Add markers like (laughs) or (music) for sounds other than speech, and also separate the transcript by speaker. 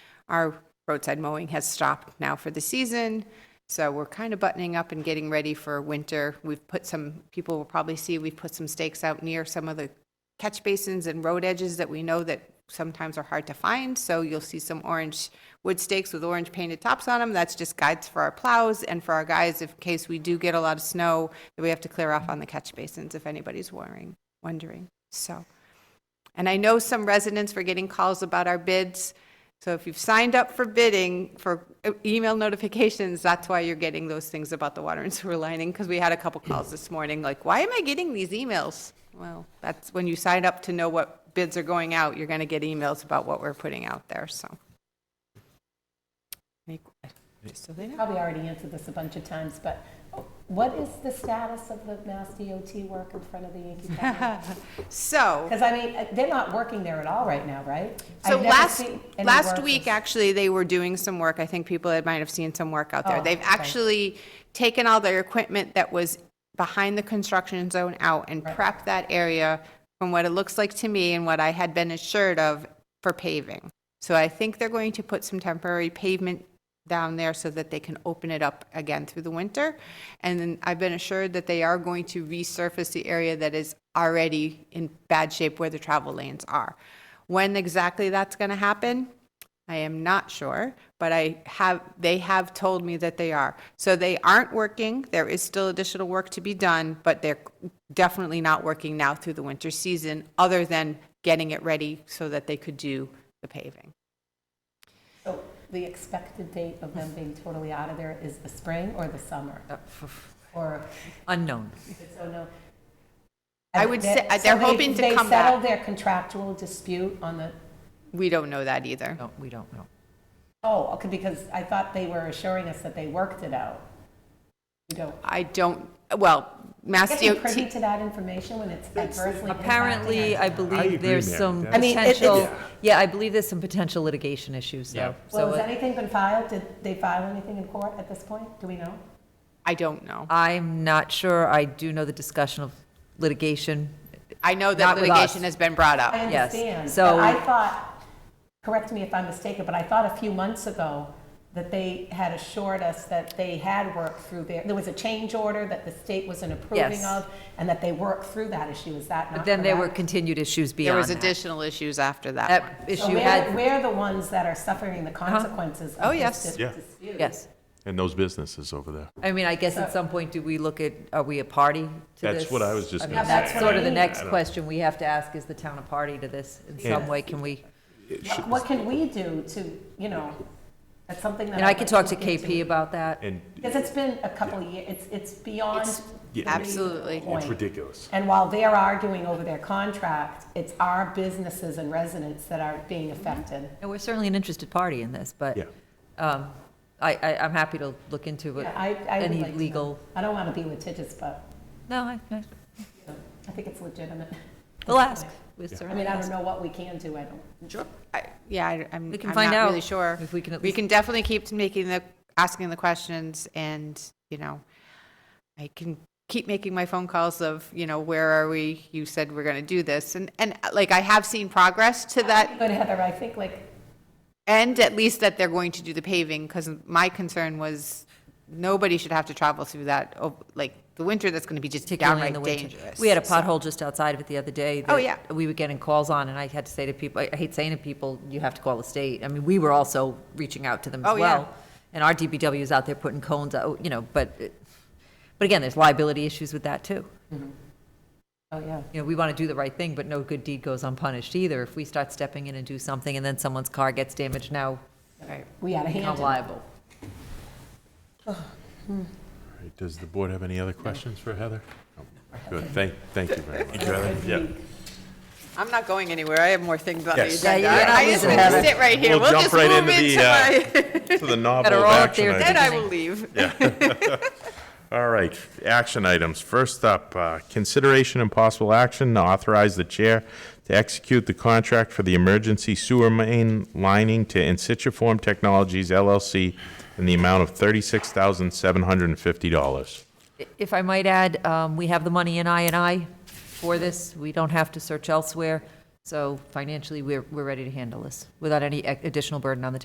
Speaker 1: Our roadside mowing has stopped now for the season, so we're kind of buttoning up and getting ready for winter. We've put some, people will probably see, we've put some stakes out near some of the catch basins and road edges that we know that sometimes are hard to find. So you'll see some orange wood stakes with orange painted tops on them. That's just guides for our plows and for our guys in case we do get a lot of snow that we have to clear off on the catch basins, if anybody's worrying, wondering. So, and I know some residents were getting calls about our bids. So if you've signed up for bidding, for uh, email notifications, that's why you're getting those things about the water and sewer lining, because we had a couple calls this morning, like, why am I getting these emails? Well, that's when you sign up to know what bids are going out, you're going to get emails about what we're putting out there, so. Any- Just so they know.
Speaker 2: Probably already answered this a bunch of times, but what is the status of the Mass DOT work in front of the Yankee Fountain?
Speaker 1: So.
Speaker 2: Because I mean, uh, they're not working there at all right now, right?
Speaker 1: So
Speaker 2: I've never
Speaker 1: last,
Speaker 2: seen any
Speaker 1: last
Speaker 2: workers.
Speaker 1: week, actually, they were doing some work. I think people had- might have seen some work out there.
Speaker 2: Oh,
Speaker 1: They've
Speaker 2: okay.
Speaker 1: actually taken all their equipment that was behind the construction zone out and prepped that area from what it looks like to me and what I had been assured of for paving. So I think they're going to put some temporary pavement down there so that they can open it up again through the winter. And then I've been assured that they are going to resurface the area that is already in bad shape where the travel lanes are. When exactly that's going to happen, I am not sure, but I have, they have told me that they are. So they aren't working, there is still additional work to be done, but they're definitely not working now through the winter season, other than getting it ready so that they could do the paving.
Speaker 2: So Oh, The expected date of them being totally out of there is the spring or the summer?
Speaker 1: Uh,
Speaker 2: Or,
Speaker 3: Unknown.
Speaker 2: it's so no.
Speaker 1: I would say- uh,
Speaker 2: So
Speaker 1: they're
Speaker 2: they-
Speaker 1: hoping to come
Speaker 2: They
Speaker 1: back.
Speaker 2: settled their contractual dispute on the,
Speaker 1: We don't know that either.
Speaker 3: No, we don't know.
Speaker 2: oh, okay, because I thought they were assuring us that they worked it out. You don't,
Speaker 1: I don't, well, Mass
Speaker 2: get you privy
Speaker 1: DOT,
Speaker 2: to that information when it's adversely impacting
Speaker 3: Apparently,
Speaker 2: us?
Speaker 3: I
Speaker 4: I agree,
Speaker 3: believe there's
Speaker 4: Mary.
Speaker 3: some
Speaker 4: That's-
Speaker 2: I mean, it- it's-
Speaker 3: potential, yeah, I believe there's some potential litigation issues,
Speaker 4: Yeah.
Speaker 3: though.
Speaker 2: Well,
Speaker 3: So
Speaker 2: has
Speaker 3: uh,
Speaker 2: anything been filed? Did they file anything in court at this point? Do we know?
Speaker 1: I don't know.
Speaker 3: I'm not sure. I do know the discussion of litigation.
Speaker 1: I know that
Speaker 3: Not with us.
Speaker 1: litigation has been brought
Speaker 2: I
Speaker 1: up.
Speaker 3: Yes,
Speaker 2: understand.
Speaker 3: so-
Speaker 2: But I thought, correct me if I'm mistaken, but I thought a few months ago that they had assured us that they had worked through their, there was a change order that the state wasn't approving
Speaker 3: Yes.
Speaker 2: of, and that they worked through that issue. Is that not
Speaker 3: But then there were
Speaker 2: correct?
Speaker 3: continued issues
Speaker 1: There
Speaker 3: beyond
Speaker 1: was
Speaker 3: that.
Speaker 1: additional issues after that one.
Speaker 3: That
Speaker 2: So
Speaker 3: issue
Speaker 2: we're-
Speaker 3: had, Uh-huh.
Speaker 2: We're the ones that are suffering the consequences
Speaker 1: Oh,
Speaker 2: of
Speaker 1: yes.
Speaker 2: this dis-
Speaker 4: Yeah.
Speaker 2: dispute.
Speaker 3: yes.
Speaker 4: And those businesses over there.
Speaker 3: I mean, I guess at some point, do we look at, are we a party to this?
Speaker 4: That's what I was just
Speaker 3: mean,
Speaker 4: gonna
Speaker 3: That's
Speaker 2: say.
Speaker 3: sort of the
Speaker 2: Yeah.
Speaker 3: next
Speaker 4: I don't-
Speaker 3: question we have to ask, is the town a party to this in some
Speaker 4: Yeah.
Speaker 3: way? Can we?
Speaker 2: What- What can we do to, you know, that's something that.
Speaker 3: And I could talk to
Speaker 2: I'd like
Speaker 3: KP about that.
Speaker 4: And
Speaker 2: Because it's been a couple of years, it's, it's beyond.
Speaker 1: It's-
Speaker 4: Yeah.
Speaker 1: Absolutely.
Speaker 4: it's ridiculous.
Speaker 2: And while they're arguing over their contract, it's our businesses and residents that are being affected.
Speaker 3: And we're certainly an interested party in this, but
Speaker 4: Yeah.
Speaker 3: um, I, I, I'm happy to look into it.
Speaker 2: Yeah, I, I would
Speaker 3: Any
Speaker 2: like to know.
Speaker 3: legal,
Speaker 2: I don't want to be litigious, but
Speaker 3: no, I, I-
Speaker 2: you know, I think it's legitimate.
Speaker 3: we'll ask. We'll
Speaker 2: I
Speaker 3: certainly
Speaker 2: mean, I
Speaker 3: ask.
Speaker 2: don't know what we can do, I don't.
Speaker 1: Sure. Yeah, I- I'm,
Speaker 3: We can
Speaker 1: I'm
Speaker 3: find
Speaker 1: not really
Speaker 3: out
Speaker 1: sure.
Speaker 3: if we can at
Speaker 1: We
Speaker 3: least-
Speaker 1: can definitely keep making the, asking the questions and, you know, I can keep making my phone calls of, you know, where are we? You said we're going to do this. And, and uh, like, I have seen progress to that
Speaker 2: But Heather, I think like,
Speaker 1: end, at least that they're going to do the paving, because my concern was nobody should have to travel through that, oh, like, the winter that's going to be just
Speaker 3: particularly in
Speaker 1: downright
Speaker 3: the winter.
Speaker 1: dangerous.
Speaker 3: We had a
Speaker 1: So-
Speaker 3: pothole just outside of it the other day.
Speaker 1: Oh,
Speaker 3: that
Speaker 1: yeah.
Speaker 3: We were getting calls on, and I had to say to people, I hate saying to people, you have to call the state. I mean, we were also reaching out to them
Speaker 1: Oh,
Speaker 3: as
Speaker 1: yeah.
Speaker 3: well. And our DPW is out there putting cones out, you know, but, it- but again, there's liability issues with that, too.
Speaker 2: oh, yeah.
Speaker 3: you know, we want to do the right thing, but no good deed goes unpunished either. If we start stepping in and do something and then someone's car gets damaged, now
Speaker 2: We had a hand
Speaker 3: we become
Speaker 2: in it.
Speaker 3: liable.
Speaker 4: All right, Does the board have any other questions for Heather? No. Good, thank, thank you very much. Yeah.
Speaker 1: I'm not going anywhere. I have more things on the
Speaker 4: Yes.
Speaker 1: agenda.
Speaker 3: Yeah, you're not
Speaker 1: I just
Speaker 3: losing
Speaker 1: gonna
Speaker 3: that.
Speaker 1: sit right here.
Speaker 4: We'll
Speaker 1: We'll
Speaker 4: jump
Speaker 1: just
Speaker 4: right
Speaker 1: move
Speaker 4: into
Speaker 1: into
Speaker 4: the, uh,
Speaker 1: my,
Speaker 4: To the novel
Speaker 3: all
Speaker 4: of
Speaker 3: up
Speaker 4: action
Speaker 3: there.
Speaker 4: items.
Speaker 1: then I will leave.
Speaker 4: (laughs) All right, action items. First up, uh, consideration and possible action to authorize the chair to execute the contract for the emergency sewer main lining to Insituform Technologies LLC in the amount of $36,750.
Speaker 3: If I might add, um, we have the money in I and I for this. We don't have to search elsewhere. So financially, we're, we're ready to handle this without any ac- e-, additional burden on the